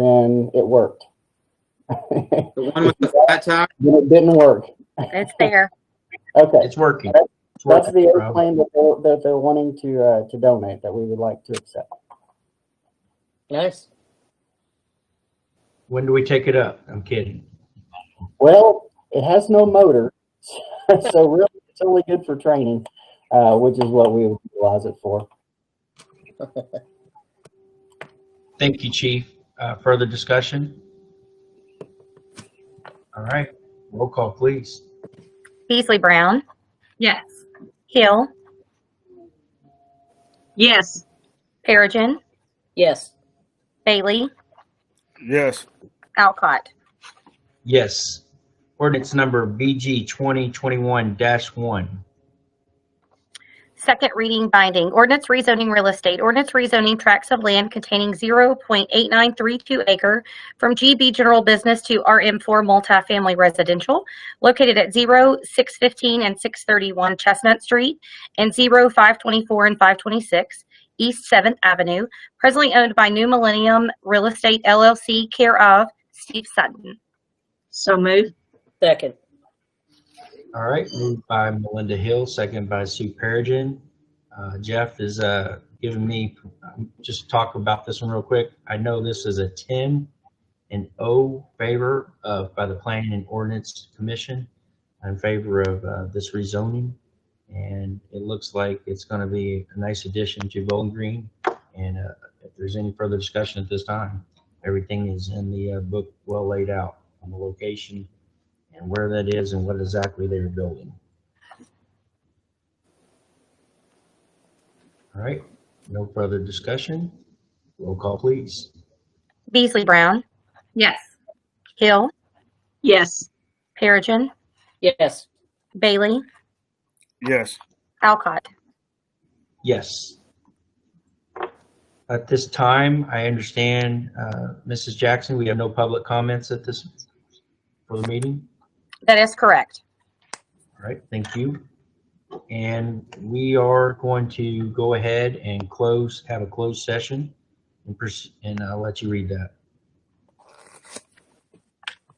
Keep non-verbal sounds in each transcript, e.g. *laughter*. then it worked. *laughs* The one with the flat top? Then it didn't work. It's there. Okay, It's working. It's that's the working, bro. airplane that they're, that they're wanting to, uh, to donate that we would like to accept. Nice. When do we take it up? I'm kidding. Well, it has no motor, *laughs* so really it's only good for training, uh, which is what we would utilize it for. Thank you, Chief. Uh, Further discussion? All right, roll call, please. Beasley Brown, Yes. Hill, Yes. Perigin, Yes. Bailey, yes. Alcott. Yes. Ordinance number BG 2021-1. Second reading binding, ordinance rezoning real estate, ordinance rezoning tracts of land containing 0.8932 acre from GB General Business to RM4 Multifamily Residential, located at 0, 615 and 631 Chestnut Street, and 0, 524 and 526 East 7th Avenue, presently owned by New Millennium Real Estate LLC, care of Steve Sutton. So moved. Second. All right, moved by Melinda Hill, second by Sue Perigin. Uh, Jeff is uh, giving me, um, just talk about this one real quick. I know this is a 10 and O favor of, by the Planning and Ordinance Commission in favor of uh, this rezoning. And it looks like it's going to be a nice addition to Bowling Green. And uh, if there's any further discussion at this time, everything is in the uh, book well laid out on the location and where that is and what exactly they were building. All right, no further discussion. Roll call, please. Beasley Brown, Yes. Hill, Yes. Perigin, Yes. Bailey, Yes. Alcott. Yes. At this time, I understand, uh, Mrs. Jackson, we have no public comments at this, for the meeting. That is correct. All right, thank you. And we are going to go ahead and close, have a closed session and pers- and I'll let you read that.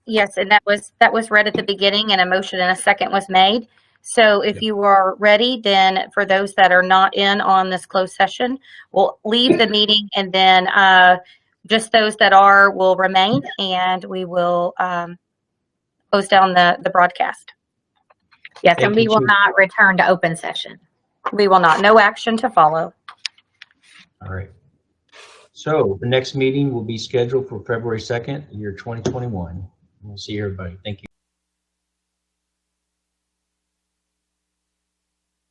Yes, and that was, that was read at the beginning and a motion and a second was made. So if Yep. you are ready, then for those that are not in on this closed session, we'll leave the meeting and then uh, just those that are will remain and we will um, close down the, the broadcast. Yes, Thank and we you, will Chief. not return to open session. We will not, no action to follow. All right. So the next meeting will be scheduled for February 2nd, year 2021. We'll see everybody. Thank you.